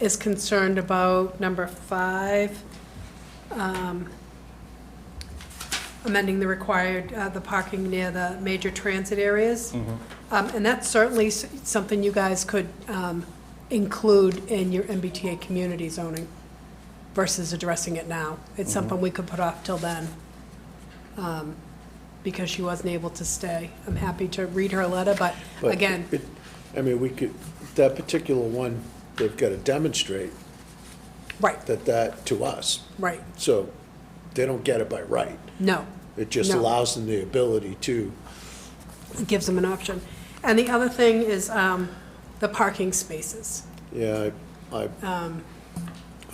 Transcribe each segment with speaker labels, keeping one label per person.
Speaker 1: is concerned about number five, um, amending the required, uh, the parking near the major transit areas.
Speaker 2: Mm-hmm.
Speaker 1: Um, And that's certainly s- something you guys could um, include in your MBTA community zoning versus addressing it now.
Speaker 2: Mm-hmm.
Speaker 1: It's something we could put off till then um, because she wasn't able to stay. I'm happy to read her letter, but
Speaker 2: But
Speaker 1: again,
Speaker 2: it- I mean, we could, that particular one, they've got to demonstrate
Speaker 1: right,
Speaker 2: that that to us.
Speaker 1: right,
Speaker 2: So they don't get it by right.
Speaker 1: no.
Speaker 2: It just
Speaker 1: No.
Speaker 2: allows them the ability to,
Speaker 1: It gives them an option. And the other thing is um, the parking spaces,
Speaker 2: yeah, I, I
Speaker 1: Um.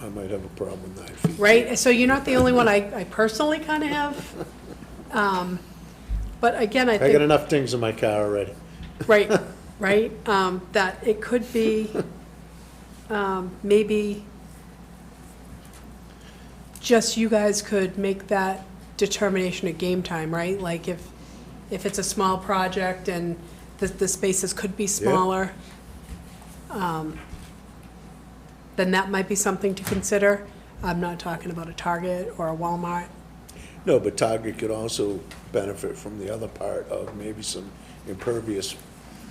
Speaker 2: I might have a problem with nine feet.
Speaker 1: right? So you're not the only one I I personally kind of have. Um, But again, I
Speaker 2: I
Speaker 1: think.
Speaker 2: got enough things in my car already.
Speaker 1: Right, right, um, that it could be, um, maybe just you guys could make that determination at game time, right? Like if, if it's a small project and the, the spaces could be smaller, um, then that might be something to consider. I'm not talking about a Target or a Walmart.
Speaker 2: No, but Target could also benefit from the other part of maybe some impervious,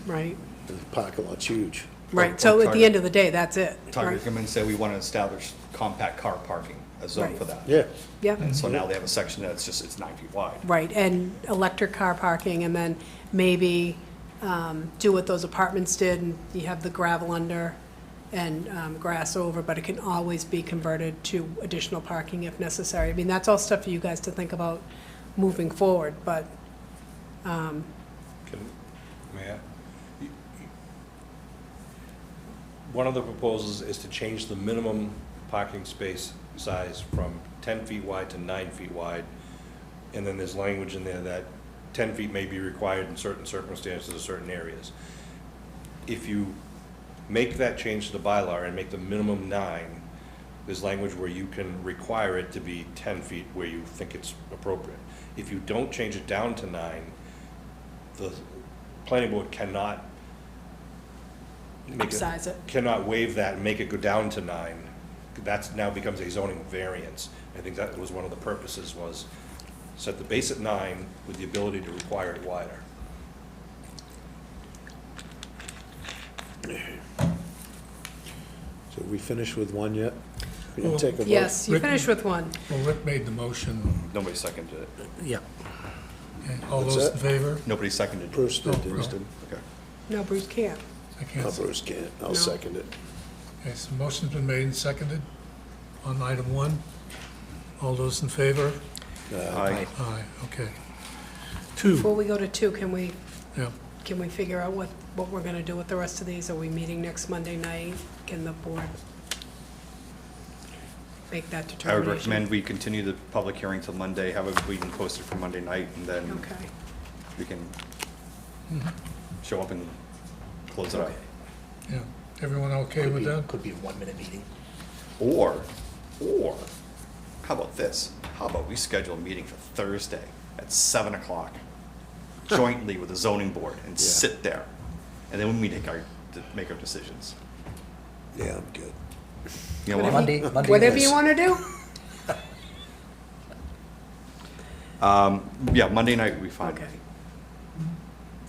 Speaker 1: Right.
Speaker 2: the parking lot's huge.
Speaker 1: Right,
Speaker 3: or
Speaker 1: so at the
Speaker 3: Target.
Speaker 1: end of the day, that's it.
Speaker 3: Target
Speaker 1: right?
Speaker 3: come in and say, we want to establish compact car parking, a zone
Speaker 1: Right.
Speaker 3: for that.
Speaker 2: Yeah,
Speaker 1: Yeah.
Speaker 3: And so now they have a section that's just, it's nine feet wide.
Speaker 1: Right, and electric car parking, and then maybe um, do what those apartments did, and you have the gravel under and um, grass over, but it can always be converted to additional parking if necessary. I mean, that's all stuff for you guys to think about moving forward, but,
Speaker 4: Can- may I? One of the proposals is to change the minimum parking space size from 10 feet wide to nine feet wide. And then there's language in there that 10 feet may be required in certain circumstances or certain areas. If you make that change to the bylaw and make the minimum nine, there's language where you can require it to be 10 feet where you think it's appropriate. If you don't change it down to nine, the planning board cannot make
Speaker 1: Upsize it.
Speaker 4: Cannot waive that and make it go down to nine. That's now becomes a zoning variance. I think that was one of the purposes was set the base at nine with the ability to require it wider.
Speaker 2: so we finished with one yet? We didn't take a vote.
Speaker 1: yes, you
Speaker 5: Rick-
Speaker 1: finish with one.
Speaker 5: Well, Rick made the motion.
Speaker 3: Nobody seconded it.
Speaker 2: Yeah.
Speaker 5: Okay, All
Speaker 2: What's
Speaker 5: those
Speaker 2: that?
Speaker 5: in favor?
Speaker 3: Nobody seconded it.
Speaker 2: Bruce did,
Speaker 5: Oh,
Speaker 2: didn't he?
Speaker 5: Bruce.
Speaker 3: Okay.
Speaker 1: No, Bruce can't.
Speaker 5: I
Speaker 2: No,
Speaker 5: can't. see.
Speaker 2: Bruce can't. I'll
Speaker 1: No.
Speaker 2: second it.
Speaker 5: Okay, so motion's been made and seconded on item one. All those in favor?
Speaker 3: Aye.
Speaker 5: Aye, okay. Two,
Speaker 1: Before we go to two, can we,
Speaker 5: yeah.
Speaker 1: can we figure out what, what we're gonna do with the rest of these? Are we meeting next Monday night? Can the board make that
Speaker 3: I would
Speaker 1: determination?
Speaker 3: recommend we continue the public hearing till Monday, have a meeting posted for Monday night, and then
Speaker 1: Okay.
Speaker 3: we can show up and close it up.
Speaker 5: Yeah, everyone okay with that?
Speaker 6: Could be a one-minute meeting.
Speaker 3: Or, or, how about this? How about we schedule a meeting for Thursday at seven o'clock jointly with the zoning board and sit there? And then we make our, make our decisions.
Speaker 2: Yeah, I'm good.
Speaker 3: You know what?
Speaker 6: Monday, Monday.
Speaker 1: Whatever
Speaker 6: is-
Speaker 1: you want to do.
Speaker 3: Yeah, Monday night would be fine.
Speaker 1: Okay.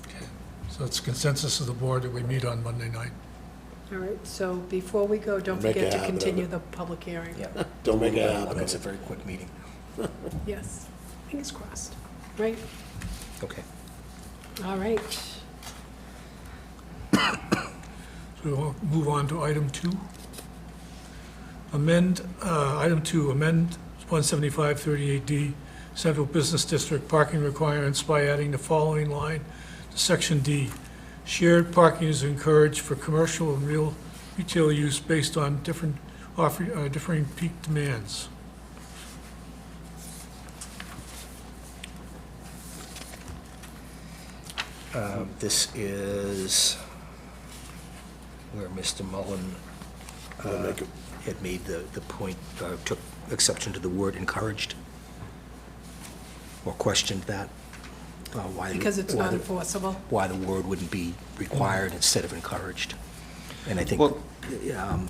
Speaker 5: Okay. So it's consensus of the board that we meet on Monday night.
Speaker 1: All right, so before we go, don't
Speaker 2: Make a
Speaker 1: forget to
Speaker 2: habit of
Speaker 1: continue
Speaker 2: it.
Speaker 1: the public hearing.
Speaker 6: Yeah.
Speaker 2: Don't make it
Speaker 6: Uh,
Speaker 2: happen.
Speaker 6: It's a very quick meeting.
Speaker 1: Yes, fingers crossed, right?
Speaker 6: Okay.
Speaker 1: All right.
Speaker 5: So we'll move on to item two. Amend, uh, item two, amend 17538D Central Business District parking requirements by adding the following line to section D. Shared parking is encouraged for commercial and real retail use based on different, offer- uh, differing peak demands.
Speaker 6: Um, This is where Mr. Mullen
Speaker 2: I'll make it-
Speaker 6: had made the, the point, uh, took exception to the word encouraged, or questioned that. uh, why the-
Speaker 1: Because it's
Speaker 6: why
Speaker 1: not
Speaker 6: the-
Speaker 1: enforceable.
Speaker 6: Why the word wouldn't be required instead of encouraged. And I think
Speaker 3: Well-
Speaker 6: um,